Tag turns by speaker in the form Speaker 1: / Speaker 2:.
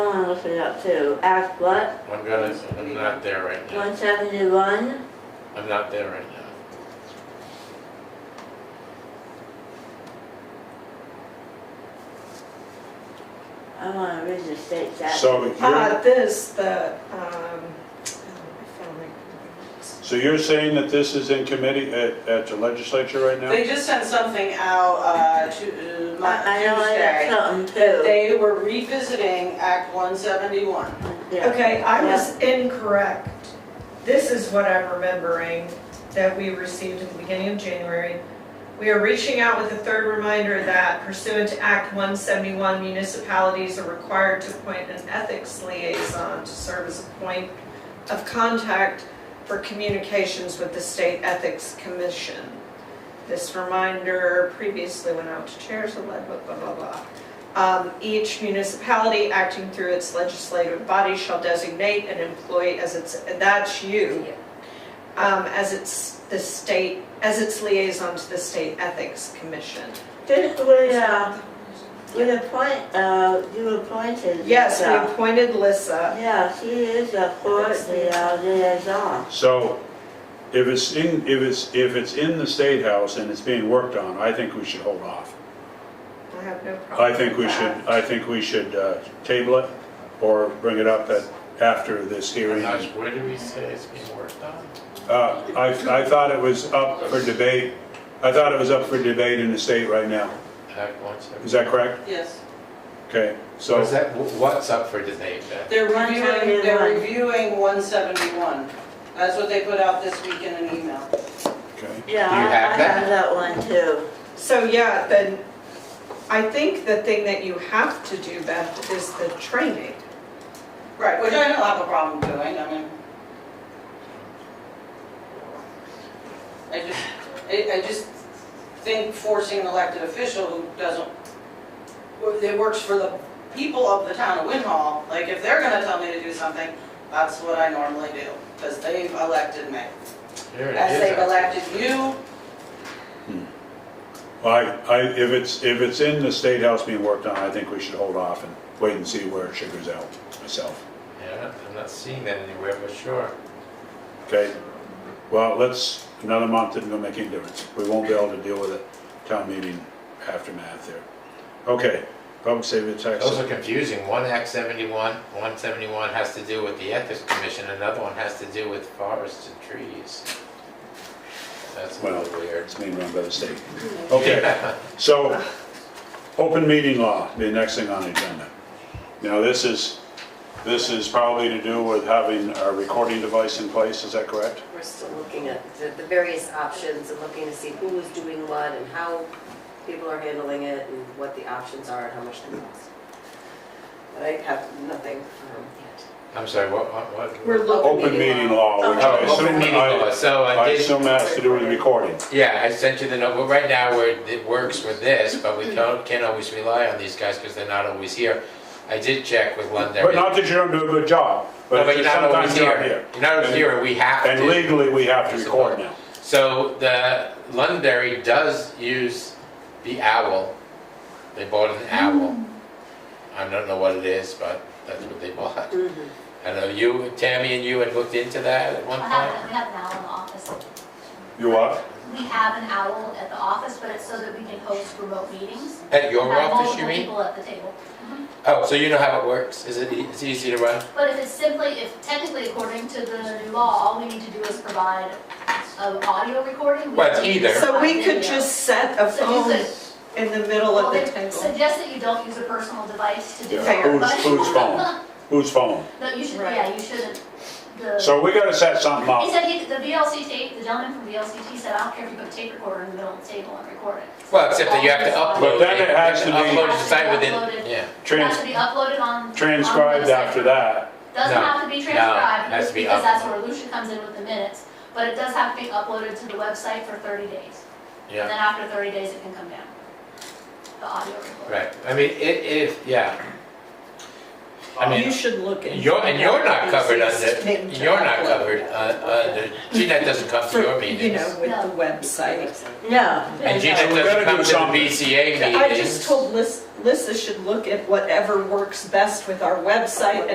Speaker 1: looking up too. Act what?
Speaker 2: I'm gonna, I'm not there right now.
Speaker 1: One seventy-one?
Speaker 2: I'm not there right now.
Speaker 1: I wanna read the state statute.
Speaker 3: So you're,
Speaker 4: Uh, this, the, um, I found my.
Speaker 3: so you're saying that this is in committee at, at the legislature right now?
Speaker 5: They just sent something out, uh, to, uh, Mon-
Speaker 1: I I know I got
Speaker 5: Tuesday.
Speaker 1: something too.
Speaker 5: They were revisiting Act one seventy-one.
Speaker 1: Yeah.
Speaker 4: Okay, I was incorrect. This is what I'm remembering that we received at the beginning of January. We are reaching out with a third reminder that pursuant to Act 171, municipalities are required to appoint an ethics liaison to serve as a point of contact for communications with the State Ethics Commission. This reminder previously went out to chairs of lead, blah, blah, blah, blah. Um, Each municipality acting through its legislative body shall designate an employee as its, that's you, um, as its, the state, as its liaison to the State Ethics Commission.
Speaker 1: This would, uh, would appoint, uh, you appointed.
Speaker 4: Yes,
Speaker 1: uh,
Speaker 4: we appointed Lissa.
Speaker 1: Yeah, she is a court liaison.
Speaker 3: So if it's in, if it's, if it's in the State House and it's being worked on, I think we should hold off.
Speaker 4: I have no problem
Speaker 3: I think we
Speaker 4: with
Speaker 3: should,
Speaker 4: that.
Speaker 3: I think we should uh, table it or bring it up at, after this hearing.
Speaker 2: Gosh,
Speaker 3: Uh,
Speaker 2: where do we say it's being worked on?
Speaker 3: I, I thought it was up for debate, I thought it was up for debate in the state right now.
Speaker 2: Act one seventy-one.
Speaker 3: Is that correct?
Speaker 5: Yes.
Speaker 3: Okay, so.
Speaker 2: So is that, what's up for debate then?
Speaker 5: They're reviewing, they're
Speaker 1: 171.
Speaker 5: reviewing one seventy-one. That's what they put out this week in an email.
Speaker 3: Okay.
Speaker 1: Yeah,
Speaker 2: Do you
Speaker 1: I
Speaker 2: have
Speaker 1: I
Speaker 2: that?
Speaker 1: have that one too.
Speaker 4: So, yeah, then, I think the thing that you have to do, Beth, is the training.
Speaker 5: Right, which I don't have a problem doing, I mean. I just, I, I just think forcing an elected official who doesn't, who- that works for the people of the town of Win Hall, like, if they're gonna tell me to do something, that's what I normally do, because they've elected me.
Speaker 2: Here it
Speaker 5: As
Speaker 2: is
Speaker 5: they've
Speaker 2: up.
Speaker 5: elected you,
Speaker 3: I, I, if it's, if it's in the State House being worked on, I think we should hold off and wait and see where it sugars out myself.
Speaker 2: Yeah, I'm not seeing that anywhere, but sure.
Speaker 3: Okay? Well, let's, another month isn't gonna make any difference. We won't be able to deal with it town meeting aftermath there. Okay, public safety tax.
Speaker 2: Those are confusing. One Act seventy-one, one seventy-one has to do with the Ethics Commission, another one has to do with forests and trees. That's a
Speaker 3: Well,
Speaker 2: little weird.
Speaker 3: It's being run by the state. Okay, so, open meeting law, the next thing on the agenda. Now, this is, this is probably to do with having a recording device in place, is that correct?
Speaker 6: We're still looking at the the various options and looking to see who is doing what and how people are handling it and what the options are and how much they cost. But I have nothing um, yet.
Speaker 2: I'm sorry, what, what, what?
Speaker 7: Oh,
Speaker 4: We're looking.
Speaker 3: Open meeting law, which I
Speaker 2: Oh, open
Speaker 3: assume,
Speaker 2: meeting
Speaker 3: I-
Speaker 2: law, so I
Speaker 3: I
Speaker 2: did.
Speaker 3: assume that has to do with the recording.
Speaker 2: Yeah, I sent you the note, but right now, we're, it works with this, but
Speaker 7: Mm-hmm.
Speaker 2: we don't, can't always rely on these guys because they're not always here. I did check with London.
Speaker 3: But not that you don't do a good job,
Speaker 2: No,
Speaker 3: but
Speaker 2: but
Speaker 3: it's
Speaker 2: you're
Speaker 3: just
Speaker 2: not always
Speaker 3: sometimes you're not
Speaker 2: here.
Speaker 3: here.
Speaker 2: You're not always
Speaker 3: And-
Speaker 2: here, and we have to.
Speaker 3: And legally, we have to record now.
Speaker 2: So the Londonderry does use the owl. They bought an owl.
Speaker 7: Mm.
Speaker 2: I don't know what it is, but that's what they bought.
Speaker 7: Mm-hmm.
Speaker 2: I know you, Tammy and you had looked into that at one
Speaker 7: We have,
Speaker 2: point.
Speaker 7: we have an owl in the office.
Speaker 3: You what?
Speaker 7: We have an owl at the office, but it's so that we can host remote meetings.
Speaker 2: At your
Speaker 7: Have
Speaker 2: office, you
Speaker 7: multiple
Speaker 2: mean?
Speaker 7: people at the table.
Speaker 2: Oh, so you know how it works? Is it, e- it's easy to run?
Speaker 7: But if it's simply, if technically according to the new law, all we need to do is provide an audio recording. we
Speaker 2: Well, it's
Speaker 7: don't need
Speaker 2: either.
Speaker 7: to
Speaker 4: So we
Speaker 7: provide
Speaker 4: could
Speaker 7: video.
Speaker 4: just set a
Speaker 7: So you
Speaker 4: phone
Speaker 7: said-
Speaker 4: in the middle
Speaker 7: Well,
Speaker 4: of the
Speaker 7: they
Speaker 4: table.
Speaker 7: suggest that you don't use a personal device to do
Speaker 3: Yeah.
Speaker 7: that.
Speaker 3: Who's,
Speaker 7: but-
Speaker 3: whose phone? Whose phone?
Speaker 7: No, you should,
Speaker 4: Right.
Speaker 7: yeah, you shouldn't. The-
Speaker 3: So we gotta set something
Speaker 2: uh,
Speaker 7: He
Speaker 3: up.
Speaker 7: said, he- the VLCT, the gentleman from VLCT said, I don't care if you put a tape recorder in the middle of the table and record it.
Speaker 2: Well, except that you have to upload.
Speaker 3: But then it
Speaker 2: You have
Speaker 3: has to be-
Speaker 2: Upload it to site within,
Speaker 7: Uploaded.
Speaker 2: yeah.
Speaker 7: It has
Speaker 3: Trans,
Speaker 7: to be uploaded on. on the
Speaker 3: transcribed
Speaker 7: website.
Speaker 3: after that.
Speaker 7: Doesn't
Speaker 2: No,
Speaker 7: have to be
Speaker 2: no,
Speaker 7: transcribed,
Speaker 2: has to be
Speaker 7: because that's
Speaker 2: uploaded.
Speaker 7: where Lucia comes in with the minutes, but it does have to be uploaded to the website for thirty days. And
Speaker 2: Yeah,
Speaker 7: then after thirty days, it can come down. The audio recording.
Speaker 2: right. I mean, it, if, yeah. I mean,
Speaker 4: You should look into.
Speaker 2: You're, and you're not
Speaker 4: the
Speaker 2: covered
Speaker 4: thing
Speaker 2: under,
Speaker 4: to
Speaker 2: you're not
Speaker 4: upload.
Speaker 2: covered, uh, uh, GNET doesn't come to
Speaker 4: For,
Speaker 2: your
Speaker 4: you
Speaker 2: meetings.
Speaker 4: know, with the website.
Speaker 1: No,
Speaker 2: And GNET
Speaker 3: So we
Speaker 2: doesn't
Speaker 3: gotta
Speaker 2: come
Speaker 3: do
Speaker 2: to
Speaker 3: something.
Speaker 2: the BCA meetings.
Speaker 4: I just told Lis- Lissa should look at whatever works best with our website